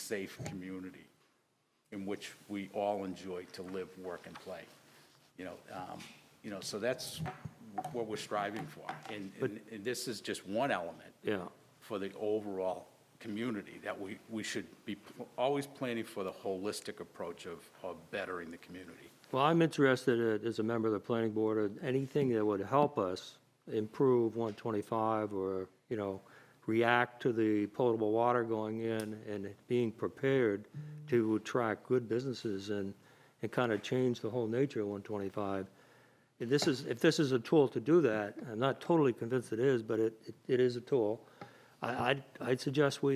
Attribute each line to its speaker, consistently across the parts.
Speaker 1: safe community in which we all enjoy to live, work, and play. You know, um, you know, so that's what we're striving for. And, and and this is just one element
Speaker 2: Yeah.
Speaker 1: for the overall community, that we, we should be pl- always planning for the holistic approach of, of bettering the community.
Speaker 2: Well, I'm interested, uh, as a member of the planning board, in anything that would help us improve 125 or, you know, react to the potable water going in and being prepared to attract good businesses and, and kind of change the whole nature of 125. If this is, if this is a tool to do that, I'm not totally convinced it is, but it, it is a tool. I, I'd, I'd suggest we,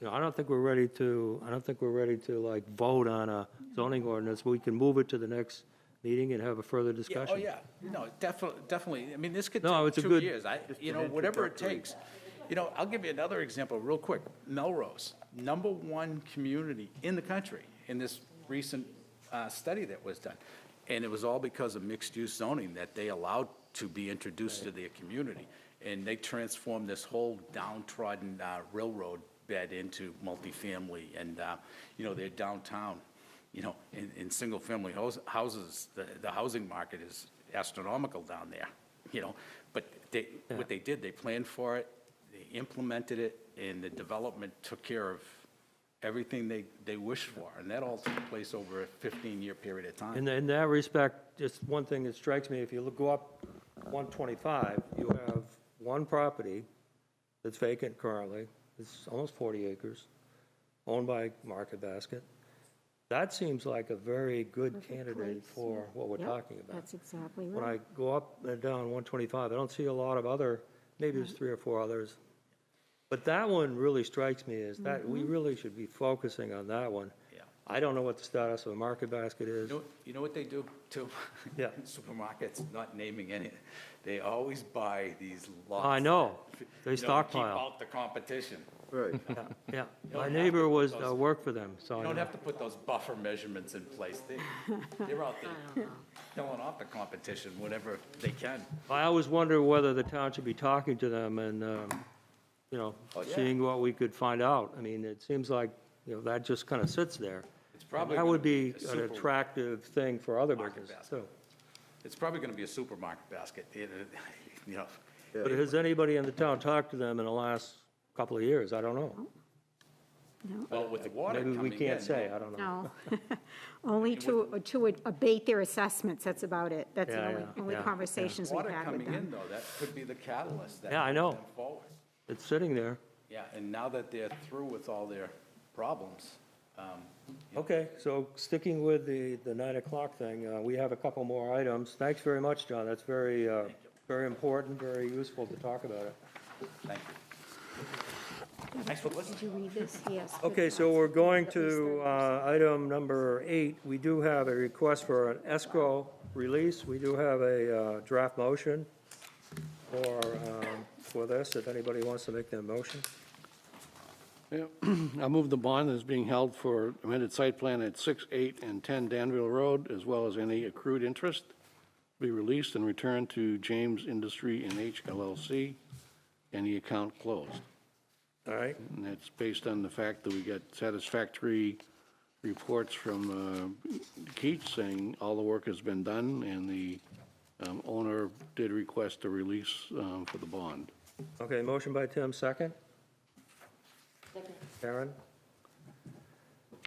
Speaker 2: you know, I don't think we're ready to, I don't think we're ready to like vote on a zoning ordinance. We can move it to the next meeting and have a further discussion.
Speaker 1: Oh, yeah, no, definitely, definitely, I mean, this could
Speaker 2: No,
Speaker 1: take
Speaker 2: it's a
Speaker 1: two
Speaker 2: good-
Speaker 1: years, I, you know, whatever it takes. You know, I'll give you another example, real quick, Melrose, number one community in the country, in this recent uh, study that was done. And it was all because of mixed-use zoning that they allowed to be introduced to their community. And they transformed this whole downtrodden uh, railroad bed into multifamily, and, uh, you know, their downtown you know, in, in single-family hous- houses, the, the housing market is astronomical down there, you know? But they, what they did, they planned for it, they implemented it, and the development took care of everything they, they wished for. And that all took place over a 15-year period of time.
Speaker 2: In, in that respect, just one thing that strikes me, if you look, go up 125, you have one property that's vacant currently, it's almost 40 acres, owned by Market Basket. That seems like a very good
Speaker 3: Perfect
Speaker 2: candidate
Speaker 3: place,
Speaker 2: for
Speaker 3: yeah.
Speaker 2: what we're
Speaker 3: Yep,
Speaker 2: talking about.
Speaker 3: That's exactly
Speaker 2: When
Speaker 3: right.
Speaker 2: I go up and down 125, I don't see a lot of other, maybe
Speaker 3: Mm-hmm.
Speaker 2: there's three or four others. But that one really strikes me as that,
Speaker 3: Mm-hmm.
Speaker 2: we really should be focusing on that one.
Speaker 1: Yeah.
Speaker 2: I don't know what the status of the Market Basket is.
Speaker 1: You know, you know what they do too?
Speaker 2: Yeah.
Speaker 1: Supermarkets, not naming any, they always buy these lots.
Speaker 2: I know. They
Speaker 1: you know, to
Speaker 2: stockpile.
Speaker 1: Keep out the competition.
Speaker 4: Right.
Speaker 2: Yeah,
Speaker 1: don't
Speaker 2: my
Speaker 1: have
Speaker 2: neighbor
Speaker 1: to
Speaker 2: was,
Speaker 1: put
Speaker 2: uh,
Speaker 1: those-
Speaker 2: worked for them, so
Speaker 1: You
Speaker 2: I
Speaker 1: don't
Speaker 2: know.
Speaker 1: have to put those buffer measurements in place. They, they're out there killing off the competition whenever they can.
Speaker 2: I always wonder whether the town should be talking to them and, um, you know,
Speaker 1: Oh, yeah.
Speaker 2: seeing what we could find out. I mean, it seems like, you know, that just kind of sits there.
Speaker 1: It's probably
Speaker 2: That would
Speaker 1: gonna be
Speaker 2: be
Speaker 1: a
Speaker 2: an
Speaker 1: super
Speaker 2: attractive thing for other
Speaker 1: market
Speaker 2: businesses,
Speaker 1: basket.
Speaker 2: too.
Speaker 1: It's probably going to be a supermarket basket, you know, you know.
Speaker 2: But has anybody in the town talked to them in the last couple of years? I don't know.
Speaker 1: Well, with the water
Speaker 2: Maybe
Speaker 1: coming in.
Speaker 2: we can't say, I don't know.
Speaker 3: No, only to, to abate their assessments, that's about it. That's the
Speaker 2: Yeah,
Speaker 3: only,
Speaker 2: yeah,
Speaker 3: only
Speaker 2: yeah.
Speaker 3: conversations we've
Speaker 1: Water
Speaker 3: had with
Speaker 1: coming in,
Speaker 3: them.
Speaker 1: though, that could be the catalyst that.
Speaker 2: Yeah, I
Speaker 1: moves
Speaker 2: know.
Speaker 1: them Forward.
Speaker 2: It's sitting there.
Speaker 1: Yeah, and now that they're through with all their problems, um,
Speaker 2: Okay, so sticking with the, the nine o'clock thing, uh, we have a couple more items. Thanks very much, John. That's very, uh, very important, very useful to talk about it.
Speaker 1: thank you. Thanks for listening.
Speaker 3: Did you read this? Yes. but
Speaker 2: Okay, so we're going to
Speaker 3: At
Speaker 2: uh, item number eight. We do have a request for an escrow release. We do have a uh, draft motion for, um, for this, if anybody wants to make that motion.
Speaker 5: Yeah, I move the bond is being held for amended site plan at 6, 8, and 10 Danville Road, as well as any accrued interest, be released and returned to James Industry and H LLC, and the account closed.
Speaker 2: All right,
Speaker 5: And that's based on the fact that we got satisfactory reports from uh, Keats saying all the work has been done, and the um, owner did request a release um, for the bond.
Speaker 2: okay, motion by Tim, second? Karen?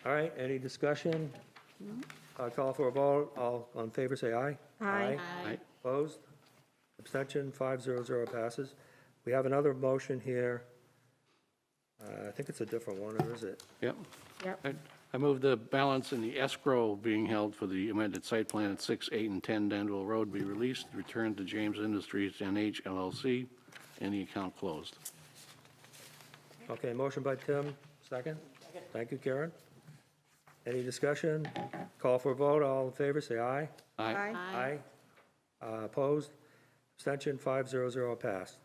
Speaker 2: All right, any discussion? I'll call for a vote. All on favor, say aye.
Speaker 3: Aye.
Speaker 5: Aye.
Speaker 2: Opposed? Abstention, 500 passes. We have another motion here. Uh, I think it's a different one, or is it?
Speaker 5: Yep.
Speaker 3: Yep.
Speaker 5: I- I move the balance in the escrow being held for the amended site plan at 6, 8, and 10 Danville Road be released, returned to James Industries NH LLC, and the account closed.
Speaker 2: Okay, motion by Tim, second. Thank you, Karen. Any discussion? Call for a vote, all in favor, say aye.
Speaker 5: Aye.
Speaker 2: Aye. Uh, Opposed? Abstention, 500 passed.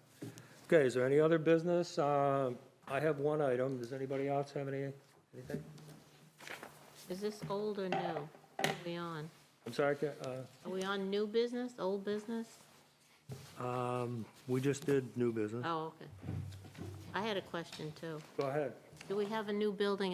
Speaker 2: Okay, is there any other business? Uh, I have one item. Does anybody else have any, anything?
Speaker 6: Is this old or new? What Are we on?
Speaker 2: I'm sorry, Ca- uh,
Speaker 6: Are we on new business, old business?
Speaker 2: Um, we just
Speaker 6: Uh,
Speaker 2: did new business.
Speaker 6: Oh, okay. I had a question, too.
Speaker 2: Go ahead.
Speaker 6: Do we have a new building